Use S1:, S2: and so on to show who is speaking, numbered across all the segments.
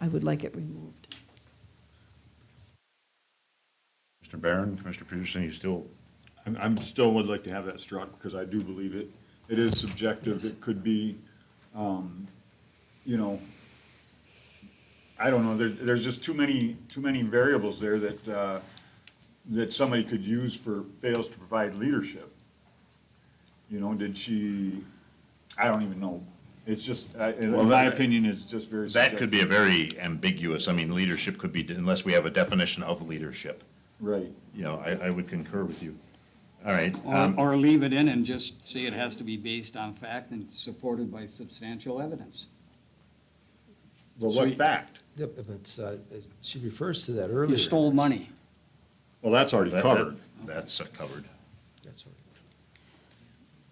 S1: I would like it removed.
S2: Mr. Barron, Commissioner Peterson, you still,
S3: I'm, I'm still would like to have that struck, because I do believe it, it is subjective, it could be, um, you know, I don't know, there, there's just too many, too many variables there that, uh, that somebody could use for, fails to provide leadership. You know, did she, I don't even know, it's just, I- in
S2: Well,
S3: my
S2: that-
S3: opinion, it's just very
S2: that
S3: subjective.
S2: could be a very ambiguous, I mean, leadership could be, unless we have a definition of leadership.
S3: Right,
S2: You know, I, I would concur with you. All right,
S4: Or,
S2: um,
S4: or leave it in and just say it has to be based on fact and supported by substantial evidence.
S3: well,
S4: So
S3: what
S4: you-
S3: fact?
S5: Yep, but uh, she refers to that earlier.
S4: You stole money.
S3: Well, that's already
S2: that-
S3: covered.
S2: that- that's uh, covered.
S5: That's all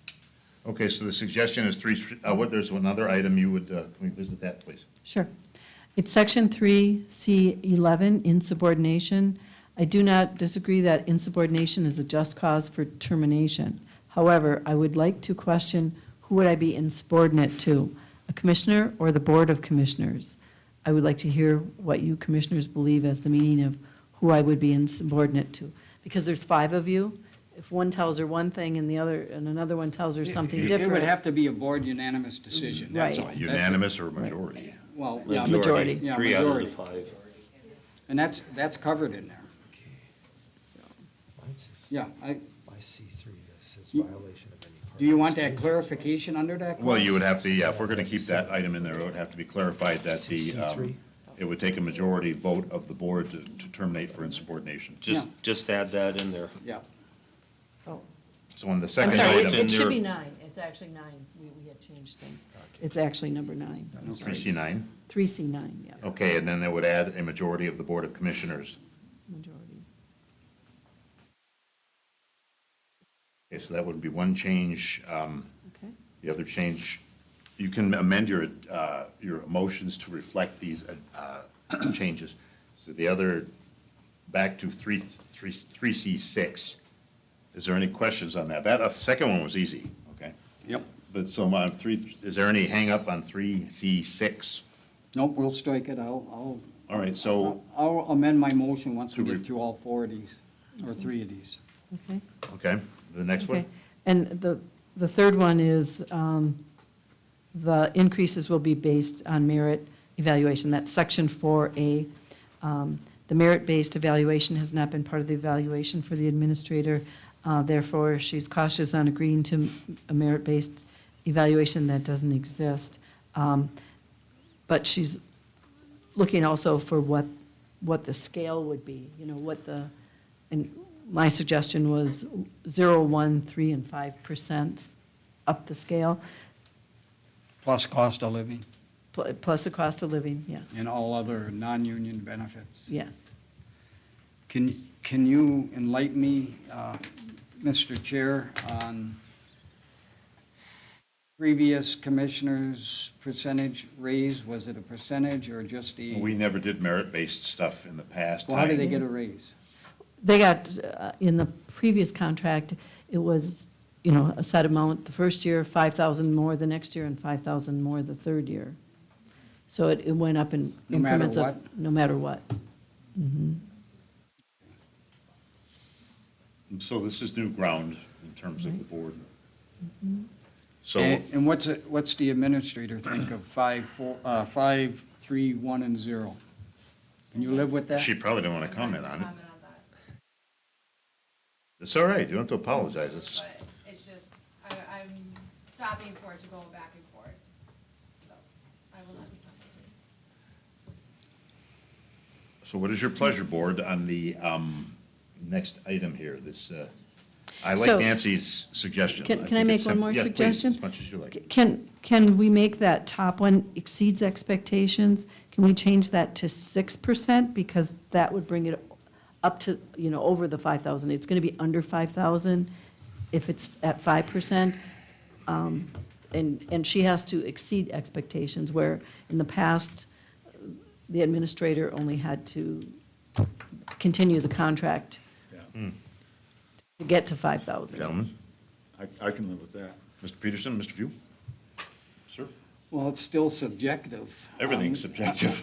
S5: right.
S2: Okay, so the suggestion is three, uh, what, there's another item you would, uh, can we visit that, please?
S1: Sure. It's section three, C eleven, insubordination. I do not disagree that insubordination is a just cause for termination. However, I would like to question, who would I be insubordinate to? A commissioner or the Board of Commissioners? I would like to hear what you commissioners believe as the meaning of who I would be insubordinate to. Because there's five of you. If one tells her one thing and the other, and another one tells her something different.
S4: It would have to be a board unanimous decision, that's all.
S1: Right.
S2: Unanimous or majority?
S4: Well, yeah,
S1: Majority.
S4: majority, yeah,
S6: Three out of the
S4: majority.
S6: five.
S4: And that's, that's covered in there.
S5: Mine says-
S4: Yeah, I,
S5: I see three that says
S4: You-
S5: violation of any part.
S4: do you want that clarification under that?
S2: Well, you
S4: clause?
S2: would have to, yeah, if we're gonna keep that item in there, it would have to be clarified that the, um,
S5: 63.
S2: it would take a majority vote of the board to to terminate for insubordination.
S6: Just,
S4: Yeah.
S6: just add that in there.
S4: Yeah,
S1: Oh.
S2: So on the
S1: I'm
S2: second
S1: sorry,
S2: item.
S1: it-
S6: in
S1: it should
S6: there.
S1: be nine, it's actually nine, we, we had changed things. It's actually number nine, I'm sorry.
S2: Three C Oh. nine,
S1: Three C nine, yeah,
S2: okay, and then that would add a majority of the Board of Commissioners.
S1: majority.
S2: Okay, so that would be one change, um,
S1: Okay,
S2: the other change, you can amend your, uh, your motions to reflect these, uh, changes. So the other, back to three, three, three C six, is there any questions on that? That, uh, the second one was easy, okay?
S4: yep.
S2: But so on three, is there any hang up on three C six?
S4: Nope, we'll strike it, I'll,
S2: All right,
S4: I'll,
S2: so,
S4: I'll amend my motion once we
S2: To
S4: get
S2: re-
S4: through all four of these, or three of these.
S1: okay,
S2: okay, the next one?
S1: okay. And the, the third one is, um, the increases will be based on merit evaluation, that's section four A. Um, The merit-based evaluation has not been part of the evaluation for the administrator, uh, therefore, she's cautious on agreeing to a merit-based evaluation that doesn't exist. Um, But she's looking also for what, what the scale would be, you know, what the, and my suggestion was zero, one, three, and five percent up the scale,
S4: Plus cost of living
S1: pl- plus the cost of living, yes,
S4: and all other non-union benefits.
S1: yes.
S4: Can, can you enlighten me, uh, Mr. Chair, on previous commissioners' percentage raise? Was it a percentage or just a?
S2: We never did merit-based stuff in the past.
S4: Well, how did they
S2: time.
S4: get a raise?
S1: They got, uh, in the previous contract, it was, you know, a set amount the first year, five thousand more the next year, and five thousand more the third year. So it, it went up in
S4: No matter
S1: increments of,
S4: what?
S1: no matter what.
S2: So this is new ground in terms of the board.
S1: Mm-hmm.
S2: So,
S4: And and what's, it- what's the administrator think of five, four, uh, five, three, one, and zero? Can you live
S1: uh,
S4: with that?
S2: she probably didn't want to comment on it. It's all right, you don't have to apologize, it's,
S7: But it's just, I, I'm stopping for it to go back and forth, so I will not be comfortable.
S2: so what is your pleasure, board, on the um, next item here, this, uh, I
S1: So-
S2: like Nancy's suggestion.
S1: Can- can
S2: think
S1: I make
S2: it's
S1: one
S2: sim-
S1: more
S2: yeah, please,
S1: suggestion?
S2: as much as you like.
S1: Can, can we make that top one exceeds expectations? Can we change that to six percent? Because that would bring it up to, you know, over the five thousand. It's gonna be under five thousand if it's at five percent. Um, And, and she has to exceed expectations, where in the past, the administrator only had to continue the contract to get to five thousand.
S2: Gentlemen,
S3: I, I can live with that.
S2: Mr. Peterson, Mr. View? Sir?
S4: Well, it's still subjective.
S1: Um,
S2: Everything's subjective.